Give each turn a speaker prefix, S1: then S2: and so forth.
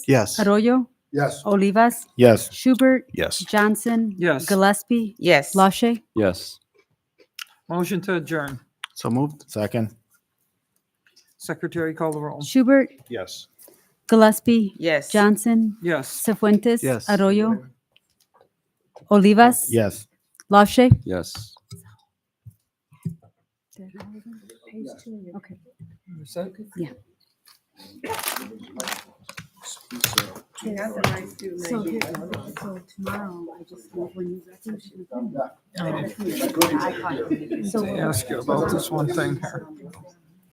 S1: Yes.
S2: Arroyo,
S3: Yes.
S2: Olivas,
S4: Yes.
S2: Schubert,
S4: Yes.
S2: Johnson,
S5: Yes.
S2: Gillespie,
S6: Yes.
S2: Lache.
S7: yes,
S5: Motion to adjourn.
S1: So moved.
S4: Second.
S5: Secretary call the roll.
S2: Schubert,
S4: Yes.
S2: Gillespie,
S6: Yes.
S2: Johnson,
S5: Yes.
S2: Cefuentes,
S1: Yes.
S2: Arroyo, Olivas,
S4: Yes.
S2: Lache.
S7: yes.
S2: Okay. So, so tomorrow, I just know when you resolution.
S5: Ask you about this one thing here.